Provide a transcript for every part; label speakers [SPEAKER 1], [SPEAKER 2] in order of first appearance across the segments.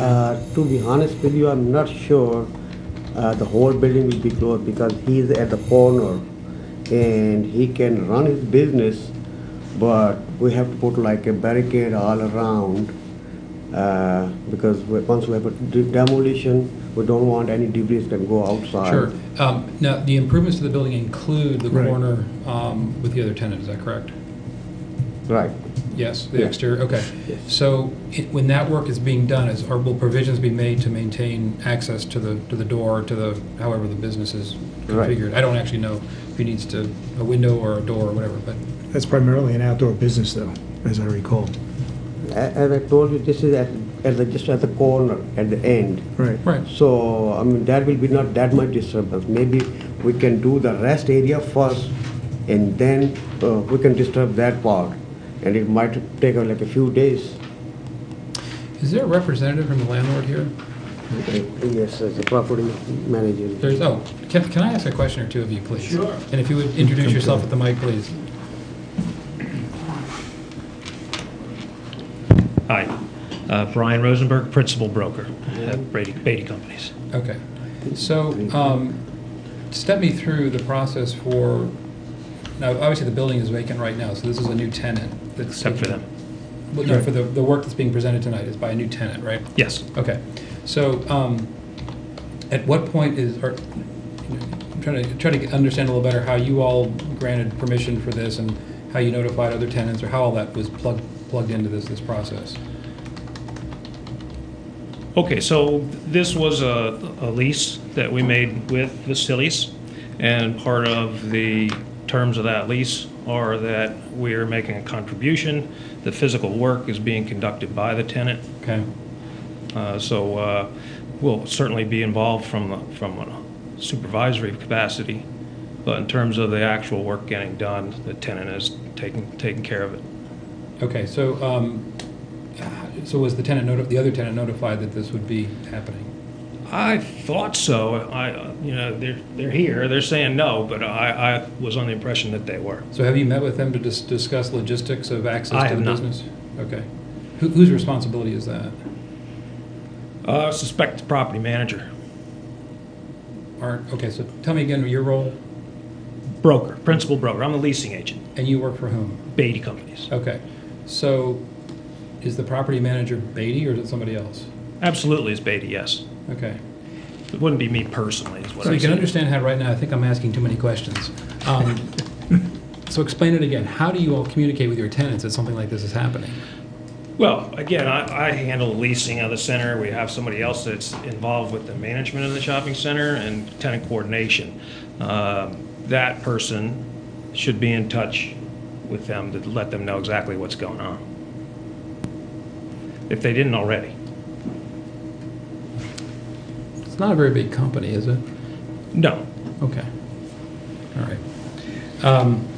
[SPEAKER 1] Uh, to be honest with you, I'm not sure uh, the whole building will be closed because he's at the corner and he can run his business, but we have to put like a barricade all around uh, because we- once we have a de- demolition, we don't want any debris can go outside.
[SPEAKER 2] Sure. Um, Now, the improvements to the building include the
[SPEAKER 3] Right.
[SPEAKER 2] corner um, with the other tenant, is that correct?
[SPEAKER 1] Right.
[SPEAKER 2] Yes, the
[SPEAKER 1] Yeah.
[SPEAKER 2] exterior, okay.
[SPEAKER 1] Yes.
[SPEAKER 2] So it- when that work is being done, is, or will provisions be made to maintain access to the, to the door, to the, however the business is
[SPEAKER 1] Right.
[SPEAKER 2] configured? I don't actually know if he needs to, a window or a door or whatever, but,
[SPEAKER 3] That's primarily an outdoor business, though, as I recall.
[SPEAKER 1] A- As I told you, this is at, at the, just at the corner, at the end.
[SPEAKER 3] Right.
[SPEAKER 2] right.
[SPEAKER 1] So, I mean, that will be not that much disturbance. Maybe we can do the rest area first and then uh, we can disturb that part. And it might take uh, like a few days.
[SPEAKER 2] Is there a representative from the landlord here?
[SPEAKER 1] Yes, as a property manager.
[SPEAKER 2] There's, oh, can, can I ask a question or two of you, please?
[SPEAKER 4] Sure.
[SPEAKER 2] And if you would introduce yourself at the mic, please.
[SPEAKER 4] Hi, Uh, Brian Rosenberg, Principal Broker at Brady Beatty Companies.
[SPEAKER 2] Okay. So, um, step me through the process for, now, obviously, the building is vacant right now, so this is a new tenant that's.
[SPEAKER 4] Except for them.
[SPEAKER 2] Well, no, for the, the work that's being presented tonight is by a new tenant, right?
[SPEAKER 4] Yes,
[SPEAKER 2] Okay. So, um, at what point is, or, I'm trying to, trying to get- understand a little better how you all granted permission for this and how you notified other tenants, or how all that was plugged, plugged into this, this process.
[SPEAKER 4] okay, so this was a a lease that we made with Vasilis, and part of the terms of that lease are that we're making a contribution, the physical work is being conducted by the tenant,
[SPEAKER 2] Okay?
[SPEAKER 4] Uh, So uh, we'll certainly be involved from, the- from a supervisory capacity, but in terms of the actual work getting done, the tenant is taking, taking care of it.
[SPEAKER 2] Okay, so, um, so was the tenant noti, the other tenant notified that this would be happening?
[SPEAKER 4] I thought so. I, uh, you know, they're, they're here, they're saying no, but I, I was on the impression that they were.
[SPEAKER 2] So have you met with them to dis- discuss logistics of
[SPEAKER 4] I
[SPEAKER 2] access to
[SPEAKER 4] have
[SPEAKER 2] the
[SPEAKER 4] not.
[SPEAKER 2] business? Okay. Who, whose responsibility is that?
[SPEAKER 4] Uh, Suspect the property manager,
[SPEAKER 2] Aren't, okay, so tell me again your role,
[SPEAKER 4] broker, principal broker. I'm the leasing agent,
[SPEAKER 2] and you work for whom?
[SPEAKER 4] Beatty Companies.
[SPEAKER 2] Okay, so is the property manager Beatty, or is it somebody else?
[SPEAKER 4] Absolutely, it's Beatty, yes.
[SPEAKER 2] Okay.
[SPEAKER 4] It wouldn't be me personally, is what
[SPEAKER 2] So
[SPEAKER 4] I
[SPEAKER 2] you can
[SPEAKER 4] said.
[SPEAKER 2] understand how right now, I think I'm asking too many questions. Um, So explain it again. How do you all communicate with your tenants that something like this is happening?
[SPEAKER 4] Well, again, I, I handle leasing of the center. We have somebody else that's involved with the management of the shopping center and tenant coordination. Um, That person should be in touch with them to let them know exactly what's going on. If they didn't already.
[SPEAKER 2] It's not a very big company, is it?
[SPEAKER 4] No,
[SPEAKER 2] Okay. All right. Um,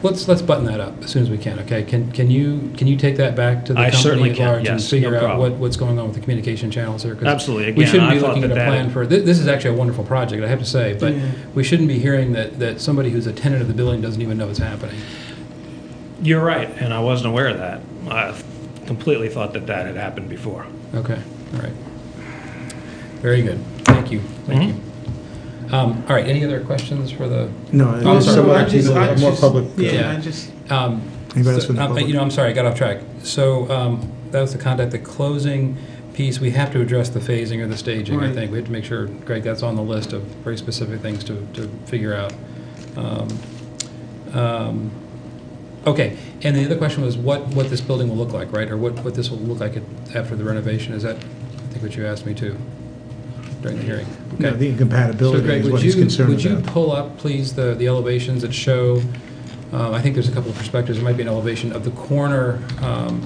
[SPEAKER 2] Let's, let's button that up as soon as we can, okay? Can, can you, can you take that back to the
[SPEAKER 4] I
[SPEAKER 2] company
[SPEAKER 4] certainly
[SPEAKER 2] at
[SPEAKER 4] can,
[SPEAKER 2] large?
[SPEAKER 4] yes, no
[SPEAKER 2] And figure out
[SPEAKER 4] problem.
[SPEAKER 2] what, what's going on with the communication channels here? 'Cause
[SPEAKER 4] Absolutely.
[SPEAKER 2] We
[SPEAKER 4] Again,
[SPEAKER 2] shouldn't
[SPEAKER 4] I
[SPEAKER 2] be
[SPEAKER 4] thought
[SPEAKER 2] looking at
[SPEAKER 4] that
[SPEAKER 2] a
[SPEAKER 4] that-
[SPEAKER 2] plan for, thi- this is actually a wonderful project, I have to say, but we shouldn't be hearing that, that somebody who's a tenant of the building doesn't even know it's happening.
[SPEAKER 4] you're right, and I wasn't aware of that. I completely thought that that had happened before.
[SPEAKER 2] Okay, all right. Very good. Thank you, thank
[SPEAKER 4] Mm-hmm.
[SPEAKER 2] you. Um, All right, any other questions for the
[SPEAKER 3] No,
[SPEAKER 2] Oh,
[SPEAKER 3] it's
[SPEAKER 2] sorry.
[SPEAKER 3] some
[SPEAKER 2] I
[SPEAKER 3] other people that are more public.
[SPEAKER 2] Yeah.
[SPEAKER 5] Yeah, I just,
[SPEAKER 2] Um,
[SPEAKER 3] Anybody else
[SPEAKER 2] so-
[SPEAKER 3] from the
[SPEAKER 2] um,
[SPEAKER 3] public?
[SPEAKER 2] You know, I'm sorry, I got off track. So um, that was the conduct, the closing piece, we have to address the phasing or the staging, I
[SPEAKER 5] Right.
[SPEAKER 2] think. We have to make sure, Greg, that's on the list of very specific things to, to figure out. Um, um, Okay, and the other question was what, what this building will look like, right? Or what, what this will look like at- after the renovation? Is that, I think what you asked me too during the hearing?
[SPEAKER 3] No,
[SPEAKER 2] Okay.
[SPEAKER 3] the
[SPEAKER 2] So
[SPEAKER 3] incompatibility
[SPEAKER 2] Greg,
[SPEAKER 3] is
[SPEAKER 2] would
[SPEAKER 3] what he's
[SPEAKER 2] you,
[SPEAKER 3] concerned
[SPEAKER 2] would you
[SPEAKER 3] about.
[SPEAKER 2] pull up, please, the, the elevations that show, uh, I think there's a couple of perspectives, there might be an elevation of the corner, um,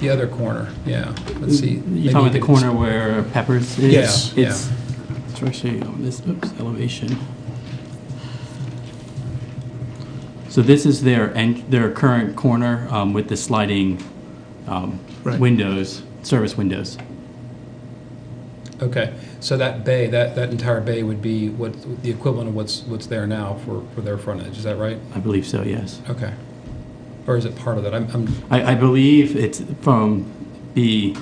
[SPEAKER 2] the other corner, yeah, let's see. Maybe
[SPEAKER 5] you talking about the
[SPEAKER 2] could-
[SPEAKER 5] corner where Peppers is?
[SPEAKER 2] Yes, yeah.
[SPEAKER 5] It's, it's actually on this, oops, elevation. So this is their, en- their current corner um, with the sliding um,
[SPEAKER 3] Right.
[SPEAKER 5] windows, service windows.
[SPEAKER 2] Okay, so that bay, that, that entire bay would be what, the equivalent of what's, what's there now for, for their frontage, is that right?
[SPEAKER 5] I believe so, yes.
[SPEAKER 2] Okay. Or is it part of that? I'm, I'm,
[SPEAKER 5] I, I believe it's from the